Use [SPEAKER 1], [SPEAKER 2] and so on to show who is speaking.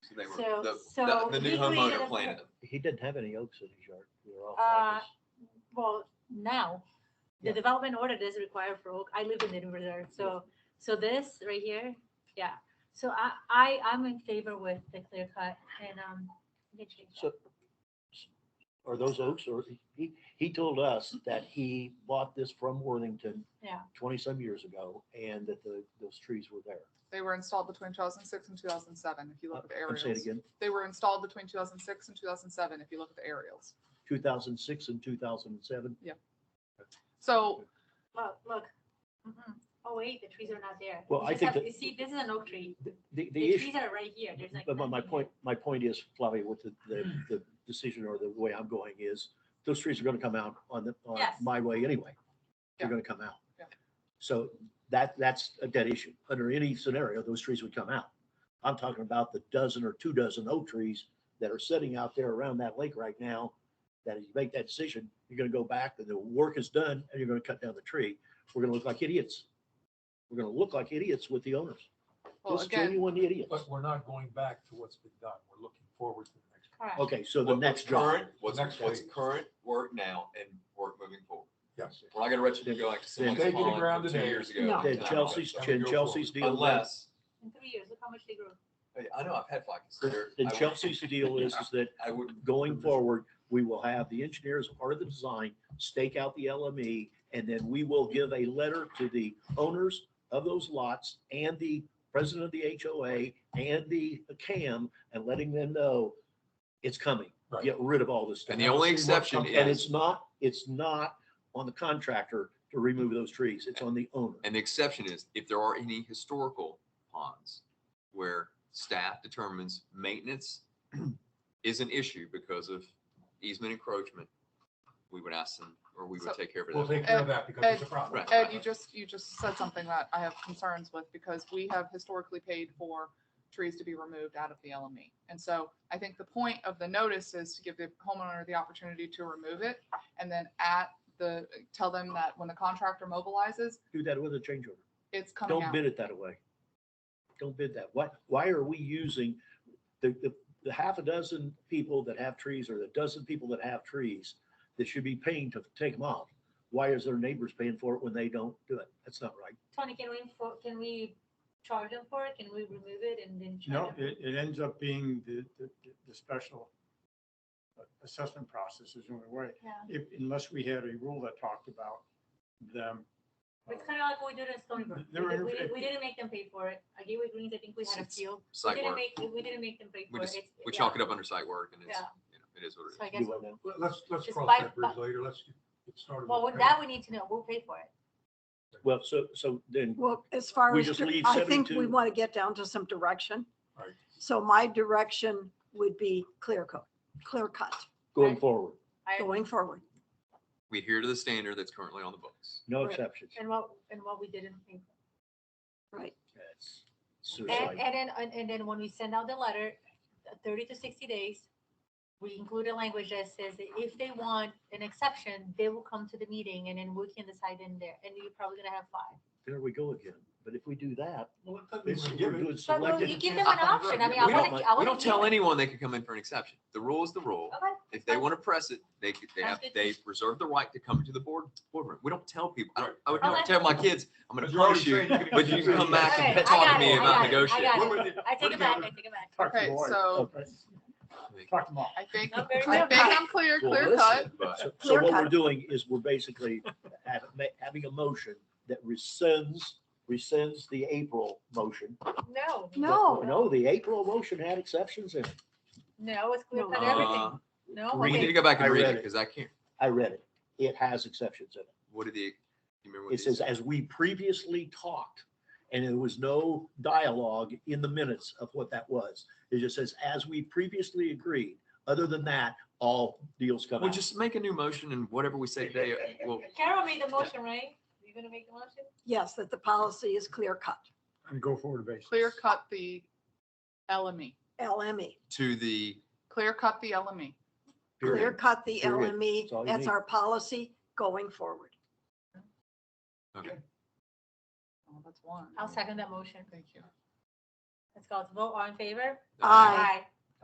[SPEAKER 1] They were,
[SPEAKER 2] So-
[SPEAKER 1] the, the,
[SPEAKER 2] so
[SPEAKER 1] the new
[SPEAKER 2] he created
[SPEAKER 1] homeowner
[SPEAKER 2] a-
[SPEAKER 1] planted them.
[SPEAKER 3] He didn't have any oaks in his yard. They were all
[SPEAKER 2] Uh,
[SPEAKER 3] cypress.
[SPEAKER 2] Well, now, the
[SPEAKER 3] Yeah.
[SPEAKER 2] development order is required for oak. I live in the new reserve, so, so this right here, yeah. So I, I, I'm in favor with the clear cut and, um, let me change that.
[SPEAKER 3] So are those oaks or he, he told us that he bought this from Worthington.
[SPEAKER 2] Yeah.
[SPEAKER 3] Twenty some years ago and that the, those trees were there.
[SPEAKER 4] They were installed between 2006 and 2007, if you look at the
[SPEAKER 3] I'm saying
[SPEAKER 4] aerials.
[SPEAKER 3] again,
[SPEAKER 4] They were installed between 2006 and 2007, if you look at the aerials.
[SPEAKER 3] two thousand six and two thousand and seven.
[SPEAKER 4] So
[SPEAKER 2] look, look. Mhm. Oh, wait, the trees are not there.
[SPEAKER 3] Well,
[SPEAKER 2] You
[SPEAKER 3] I
[SPEAKER 2] just
[SPEAKER 3] think
[SPEAKER 2] have-
[SPEAKER 3] that-
[SPEAKER 2] You see, this is an oak tree.
[SPEAKER 3] The, the
[SPEAKER 2] The
[SPEAKER 3] issue.
[SPEAKER 2] trees are right here. There's like.
[SPEAKER 3] But my, my
[SPEAKER 2] nothing
[SPEAKER 3] point, my point is, Flavia, what the, the, the decision or the way I'm going is, those trees are gonna come out on the, on
[SPEAKER 2] Yes.
[SPEAKER 3] my way anyway. They're
[SPEAKER 4] Yeah.
[SPEAKER 3] gonna come out.
[SPEAKER 4] Yeah.
[SPEAKER 3] So that, that's a dead issue. Under any scenario, those trees would come out. I'm talking about the dozen or two dozen oak trees that are sitting out there around that lake right now. That if you make that decision, you're gonna go back and the work is done and you're gonna cut down the tree. We're gonna look like idiots. We're gonna look like idiots with the owners.
[SPEAKER 4] Well,
[SPEAKER 3] Just
[SPEAKER 4] again-
[SPEAKER 3] genuine idiots.
[SPEAKER 5] But we're not going back to what's been done. We're looking forward to the next.
[SPEAKER 2] there. Correct.
[SPEAKER 3] Okay, so the
[SPEAKER 1] What-
[SPEAKER 3] next
[SPEAKER 1] what's
[SPEAKER 3] job.
[SPEAKER 1] current- What's,
[SPEAKER 5] Next
[SPEAKER 1] what's
[SPEAKER 5] phase.
[SPEAKER 1] current work now and work moving forward.
[SPEAKER 5] Yes.
[SPEAKER 1] We're not gonna let you go like to someone's
[SPEAKER 5] They do the
[SPEAKER 1] pond
[SPEAKER 5] ground
[SPEAKER 1] from two
[SPEAKER 5] today.
[SPEAKER 1] years ago.
[SPEAKER 2] No.
[SPEAKER 1] and
[SPEAKER 3] Then
[SPEAKER 1] time
[SPEAKER 3] Chelsea's,
[SPEAKER 1] away.
[SPEAKER 5] Chelsea-
[SPEAKER 3] then Chelsea's deal, then
[SPEAKER 1] Unless,
[SPEAKER 2] In three years, look how much they grew.
[SPEAKER 1] I know I've had flags. They're- I would-
[SPEAKER 3] Chelsea's deal is, is that
[SPEAKER 1] I would,
[SPEAKER 3] going forward, we will have the engineers, part of the design, stake out the LME, and then we will give a letter to the owners of those lots and the president of the HOA and the CAM and letting them know it's coming.
[SPEAKER 5] Right.
[SPEAKER 3] Get rid of all this stuff.
[SPEAKER 1] and the only
[SPEAKER 5] Let's see what
[SPEAKER 1] exception
[SPEAKER 5] comes-
[SPEAKER 3] And
[SPEAKER 1] is,
[SPEAKER 3] it's not, it's not on the contractor to remove those trees. It's on the owner.
[SPEAKER 1] and the exception is if there are any historical ponds where staff determines maintenance is an issue because of easement encroachment, we would ask them, or we would
[SPEAKER 4] So-
[SPEAKER 1] take care
[SPEAKER 5] We'll
[SPEAKER 1] of that.
[SPEAKER 5] take care of that because it's a problem.
[SPEAKER 1] Right.
[SPEAKER 4] Ed, you just, you just said something that I have concerns with because we have historically paid for trees to be removed out of the LME. And so I think the point of the notice is to give the homeowner the opportunity to remove it and then at the, tell them that when the contractor mobilizes,
[SPEAKER 3] Do that with a change order.
[SPEAKER 4] it's coming
[SPEAKER 3] Don't
[SPEAKER 4] out.
[SPEAKER 3] bid it that way. Don't bid that. Why, why are we using the, the, the half a dozen people that have trees or the dozen people that have trees that should be paying to take them off? Why is their neighbors paying for it when they don't do it? That's not right.
[SPEAKER 2] Tony, can we, for- can we charge them for it? Can we remove it and then charge
[SPEAKER 6] No,
[SPEAKER 2] them?
[SPEAKER 6] it, it ends up being the, the, the special assessment process is the only way.
[SPEAKER 2] Yeah.
[SPEAKER 6] If, unless we had a rule that talked about them. uh,
[SPEAKER 2] It's kind of like what we did in Stony Brook. We
[SPEAKER 6] There were
[SPEAKER 2] did- We
[SPEAKER 6] interfe-
[SPEAKER 2] did- we didn't make them pay for it. At Gateway Greens, I think we had a
[SPEAKER 1] It's-
[SPEAKER 2] few. We
[SPEAKER 1] Site
[SPEAKER 2] didn't
[SPEAKER 1] work,
[SPEAKER 2] make, we didn't make them pay
[SPEAKER 1] we
[SPEAKER 2] for it.
[SPEAKER 1] just,
[SPEAKER 2] It's-
[SPEAKER 1] we
[SPEAKER 2] yeah.
[SPEAKER 1] chalk it up under site work and it's,
[SPEAKER 2] Yeah.
[SPEAKER 1] you know, it is what it is.
[SPEAKER 2] So I guess,
[SPEAKER 3] Do what now?
[SPEAKER 5] Let- Let's, let's
[SPEAKER 2] Just
[SPEAKER 5] cross
[SPEAKER 2] by-
[SPEAKER 5] that bridge later. Let's get get started.
[SPEAKER 2] well,
[SPEAKER 5] with
[SPEAKER 2] with
[SPEAKER 5] the
[SPEAKER 2] that, we need to know, we'll pay for it.
[SPEAKER 3] Well, so, so then,
[SPEAKER 7] Well, as far
[SPEAKER 3] We
[SPEAKER 7] as,
[SPEAKER 3] just
[SPEAKER 7] dir-
[SPEAKER 3] leave
[SPEAKER 7] I think we
[SPEAKER 3] 72.
[SPEAKER 7] want to get down to some direction.
[SPEAKER 5] Right.
[SPEAKER 7] So my direction would be clear coat, clear cut
[SPEAKER 3] going forward,
[SPEAKER 2] I-
[SPEAKER 7] going forward.
[SPEAKER 1] We adhere to the standard that's currently on the books.
[SPEAKER 3] no
[SPEAKER 2] Right.
[SPEAKER 3] exceptions.
[SPEAKER 2] And what, and what we didn't pay for.
[SPEAKER 7] Right.
[SPEAKER 3] That's
[SPEAKER 2] And,
[SPEAKER 3] Suicide.
[SPEAKER 2] and then, and, and then when we send out the letter, uh, thirty to sixty days, we include a language that says that if they want an exception, they will come to the meeting and then we can decide in there, and you're probably gonna have five.
[SPEAKER 3] There we go again. But if we do that,
[SPEAKER 5] Well, it doesn't mean
[SPEAKER 3] it's-
[SPEAKER 5] we're
[SPEAKER 3] we're
[SPEAKER 5] giving-
[SPEAKER 3] doing
[SPEAKER 2] But well, you
[SPEAKER 3] selective.
[SPEAKER 2] give them an option, I mean, I
[SPEAKER 1] We
[SPEAKER 2] wanna,
[SPEAKER 3] don't
[SPEAKER 2] I
[SPEAKER 3] like-
[SPEAKER 2] wanna. Oh,
[SPEAKER 1] We don't
[SPEAKER 2] keep
[SPEAKER 1] tell
[SPEAKER 2] it.
[SPEAKER 1] anyone they can come in for an exception. The rule is the rule.
[SPEAKER 2] Okay,
[SPEAKER 1] If they want to press it, they, could- they have,
[SPEAKER 2] Sounds good.
[SPEAKER 1] they reserve the right to come to the board, boardroom. We don't tell people, I don't, I would
[SPEAKER 2] Right.
[SPEAKER 1] never
[SPEAKER 2] Okay.
[SPEAKER 1] tell my kids, I'm
[SPEAKER 5] But
[SPEAKER 1] gonna
[SPEAKER 5] you're already
[SPEAKER 1] punish you.
[SPEAKER 5] saying you're
[SPEAKER 1] but
[SPEAKER 5] gonna
[SPEAKER 1] you
[SPEAKER 5] do
[SPEAKER 1] can come
[SPEAKER 5] that.
[SPEAKER 1] back and
[SPEAKER 2] Okay, I
[SPEAKER 1] talk to
[SPEAKER 2] got
[SPEAKER 1] me
[SPEAKER 2] it, I
[SPEAKER 1] about
[SPEAKER 2] got it, I got
[SPEAKER 1] negotiating.
[SPEAKER 2] it. I take it back, I take it back.
[SPEAKER 6] Talk to the
[SPEAKER 4] Okay,
[SPEAKER 6] lawyer.
[SPEAKER 4] so-
[SPEAKER 6] Okay. Talk to them all.
[SPEAKER 4] I think,
[SPEAKER 2] Not very
[SPEAKER 4] I
[SPEAKER 2] much.
[SPEAKER 4] think I'm clear,
[SPEAKER 3] Well,
[SPEAKER 4] clear
[SPEAKER 3] listen,
[SPEAKER 4] cut.
[SPEAKER 1] But-
[SPEAKER 3] So- So
[SPEAKER 7] Clear
[SPEAKER 3] what we're
[SPEAKER 7] cut.
[SPEAKER 3] doing is we're basically ha- ma- having a motion that rescinds, rescinds the April motion.
[SPEAKER 2] No,
[SPEAKER 7] No,
[SPEAKER 3] No, the April motion had exceptions in it.
[SPEAKER 2] no, it's clear
[SPEAKER 7] No.
[SPEAKER 2] cut
[SPEAKER 7] Uh,
[SPEAKER 2] everything, no.
[SPEAKER 1] We need
[SPEAKER 2] okay.
[SPEAKER 1] to go back
[SPEAKER 3] I
[SPEAKER 1] and read
[SPEAKER 3] read
[SPEAKER 1] it
[SPEAKER 3] it.
[SPEAKER 1] because I can't,
[SPEAKER 3] I read it. It has exceptions in it.
[SPEAKER 1] what did the, you remember what
[SPEAKER 3] It
[SPEAKER 1] these-
[SPEAKER 3] says, as we previously talked, and there was no dialogue in the minutes of what that was. It just says, as we previously agreed. Other than that, all deals come
[SPEAKER 1] Well,
[SPEAKER 3] out.
[SPEAKER 1] just make a new motion and whatever we say today, uh, well,
[SPEAKER 2] Carol made the motion, right? You gonna make the motion?
[SPEAKER 7] yes, that the policy is clear cut,
[SPEAKER 6] And go forward basis.
[SPEAKER 4] Clear cut the LME,
[SPEAKER 7] LME.
[SPEAKER 1] to the,
[SPEAKER 4] clear cut the E. LME.
[SPEAKER 7] Clear
[SPEAKER 3] Period.
[SPEAKER 7] cut the
[SPEAKER 3] Period. That's all you
[SPEAKER 7] LME. That's
[SPEAKER 3] need.
[SPEAKER 7] our policy going forward.
[SPEAKER 1] okay.
[SPEAKER 4] Oh, that's one.
[SPEAKER 2] I'll second that motion.
[SPEAKER 4] Thank you.
[SPEAKER 1] Let's go. Vote all in favor?
[SPEAKER 2] Aye.
[SPEAKER 1] uh, Aye.